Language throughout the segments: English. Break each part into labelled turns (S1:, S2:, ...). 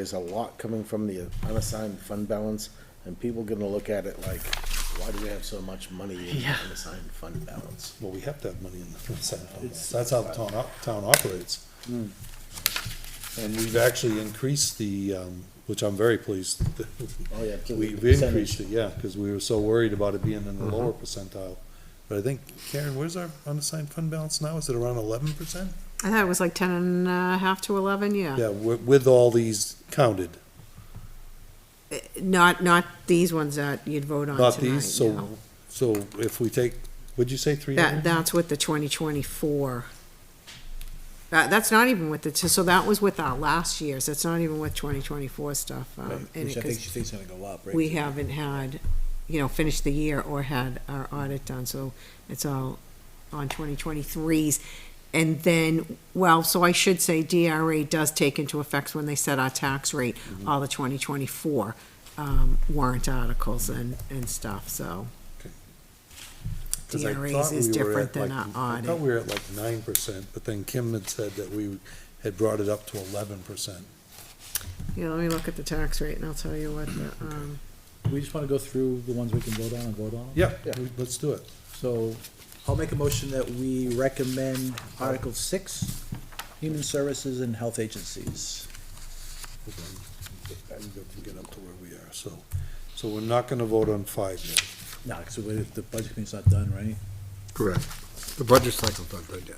S1: There's a lot coming from the unassigned fund balance, and people gonna look at it like, why do we have so much money in
S2: Yeah.
S1: unassigned fund balance?
S3: Well, we have to have money in the unassigned fund balance. That's how the town, op- town operates.
S2: Hmm.
S3: And we've actually increased the, um, which I'm very pleased. that
S1: Oh, yeah, to the
S3: We've
S1: percentage.
S3: increased it, yeah, because we were so worried about it being in the lower
S4: Mm-hmm.
S3: percentile. But I think, Karen, where's our unassigned fund balance now? Is it around eleven percent?
S2: I thought it was like ten and a half to eleven, yeah.
S3: Yeah, with, with all these counted,
S2: Not, not these ones that you'd vote on
S3: not
S2: tonight,
S3: these, so,
S2: no.
S3: so if we take, would you say three
S2: That,
S3: hundred?
S2: that's with the twenty twenty-four. That, that's not even with the, so that was with our last year's, that's not even with twenty twenty-four stuff. um, and
S4: Which
S2: it-
S4: I think
S2: 'cause
S4: she thinks is gonna go up, right?
S2: We haven't had, you know, finished the year or had our audit done, so it's all on twenty twenty-threes. And then, well, so I should say DRA does take into effect when they set our tax rate,
S3: Mm-hmm.
S2: all the twenty twenty-four, um, warrant articles and, and stuff, so. DRAs is different than our
S3: I thought
S2: audit.
S3: we were at like nine percent, but then Kim had said that we had brought it up to eleven percent.
S2: Yeah, let me look at the tax rate and I'll tell you what the, um,
S4: We just wanna go through the ones we can vote on and vote on.
S3: Yeah,
S1: Yeah.
S3: we- let's do it.
S4: So, I'll make a motion that we recommend Article six, Human Services and Health Agencies.
S3: Hold on. I'm going to get up to where we are, so, so we're not gonna vote on five yet.
S4: No, cause we- the budget committee's not done, right?
S5: Correct. The budget cycle's not done yet.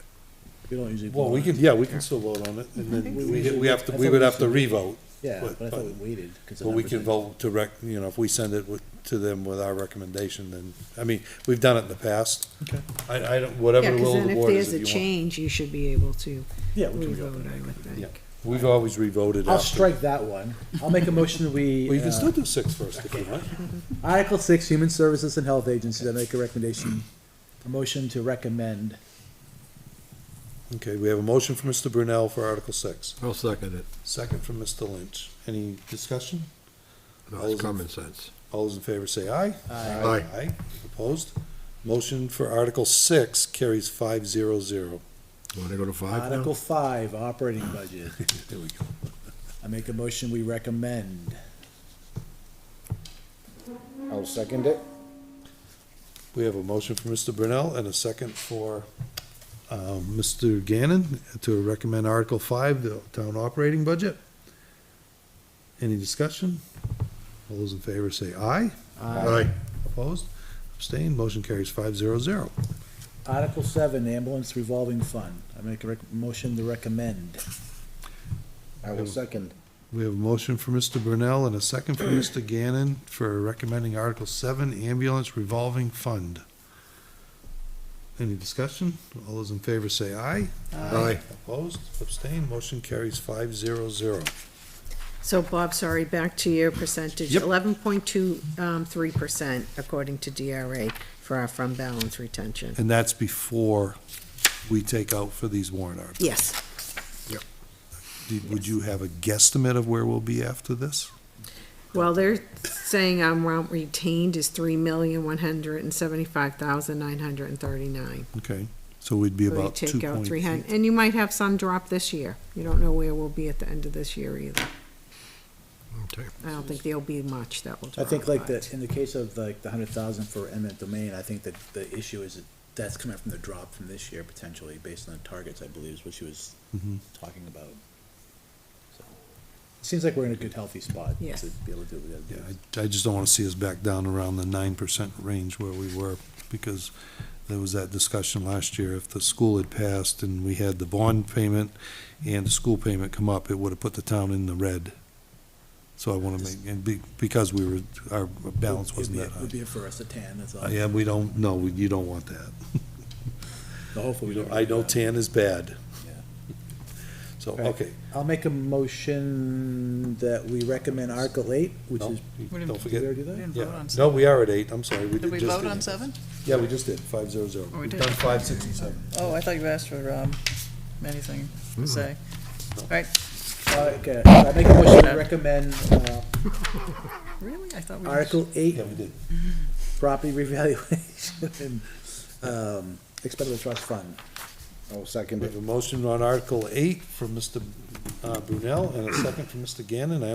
S4: We don't usually.
S3: Well,
S4: vote
S3: we
S4: on
S3: can,
S4: it.
S3: yeah, we can still vote on it, and then we, we have to, we would have to re-vote.
S4: Yeah,
S3: but-
S4: but I thought we waited. 'cause the
S3: But we
S4: numbers
S3: can
S4: are-
S3: vote to rec, you know, if we send it with, to them with our recommendation, then, I mean, we've done it in the past.
S4: Okay.
S3: I, I don't,
S2: yeah,
S3: whatever the
S2: cause
S3: will of
S2: then
S3: the
S2: if
S3: board is,
S2: there's a
S3: if you want.
S2: change, you should be able to
S4: Yeah, we can
S2: re-vote,
S4: reopen
S2: I would
S3: Yeah.
S2: think.
S3: We've always re-voted
S4: it. I'll
S3: after.
S4: strike that one. I'll make a motion that we.
S3: Well, you can
S4: uh,
S3: still do six first if you want.
S4: Article six, Human Services and Health Agencies, I make a recommendation, a motion to recommend.
S3: Okay, we have a motion from Mr. Brunel for Article six,
S5: I'll second it.
S3: second from Mr. Lynch. Any discussion?
S5: No,
S3: All those in-
S5: it's common sense.
S3: All those in favor say aye.
S4: Aye.
S5: Aye.
S3: Aye, opposed? Motion for Article six carries five zero zero.
S5: Want to go to five now?
S3: oh.
S4: Article five, operating budget.
S5: There we go.
S4: I make a motion, we recommend.
S1: I'll second it.
S3: We have a motion for Mr. Brunel and a second for, um, Mr. Gannon to recommend Article five, the town operating budget. Any discussion? All those in favor say aye.
S5: Aye.
S3: Opposed? Abstained? Motion carries five zero zero.
S4: Article seven, ambulance revolving fund. I make a rec- motion to recommend.
S1: I will second.
S3: We have a motion for Mr. Brunel and a second for Mr. Gannon for recommending Article seven, ambulance revolving fund. Any discussion? All those in favor say aye.
S5: Aye.
S3: Opposed? Abstained? Motion carries five zero zero.
S2: So Bob, sorry, back to your percentage,
S3: Yep.
S2: eleven point two, um, three percent according to DRA for our fund balance retention.
S3: And that's before we take out for these warrant articles.
S2: Yes,
S3: Did- Would you have a guesstimate of where we'll be after this?
S2: well, they're saying our amount retained is three million, one hundred and seventy-five thousand, nine hundred and thirty-nine.
S3: Okay, so we'd be about two
S2: Take out
S3: point.
S2: three hundred, and you might have some drop this year, you don't know where we'll be at the end of this year either.
S5: Okay.
S2: I don't think there'll be much that will
S4: I
S2: drop.
S4: think like
S2: but-
S4: the, in the case of like the hundred thousand for eminent domain, I think that the issue is that that's coming from the drop from this year potentially, based on the targets, I believe, is what she was
S3: Mhm.
S4: talking about. So, it Seems like we're in a good healthy spot
S2: Yes.
S4: to be able to do what we gotta
S3: Yeah,
S4: do.
S3: I, I just don't wanna see us back down around the nine percent range where we were, because there was that discussion last year, if the school had passed and we had the bond payment and the school payment come up, it would've put the town in the red. So I wanna make, and be, because we were, our balance
S4: It'd
S3: wasn't
S4: be-
S3: that
S4: It'd
S3: high.
S4: be a for us to tan, that's all.
S3: Uh, Yeah, we don't, no, we- you don't want that.
S4: So Hopefully we don't.
S3: I know
S4: really have-
S3: tan is bad.
S4: Yeah.
S3: So,
S4: Right.
S3: okay,
S4: I'll make a motion that we recommend Article eight, which
S3: no,
S4: is,
S3: don't
S4: did we
S3: forget,
S4: already do that?
S6: didn't vote
S3: yeah,
S6: on
S3: no,
S6: seven.
S3: we are at eight, I'm sorry, we did
S6: Did we
S3: just.
S6: vote
S3: did-
S6: on seven?
S3: Yeah, we just did, five zero zero.
S6: Oh, we
S3: We've
S6: did.
S3: done five, six, and seven.
S6: Oh, I thought you asked for, um, anything to say. All right,
S4: Uh, Okay, so I make a motion to
S6: No.
S4: recommend, uh,
S6: really? I thought we. just-
S4: Article eight,
S3: Yeah, we did.
S4: property revaluation, um, expendable trust fund.
S1: I will second
S3: We
S1: it.
S3: have a motion on Article eight from Mr. uh, Brunel and a second from Mr. Gannon. I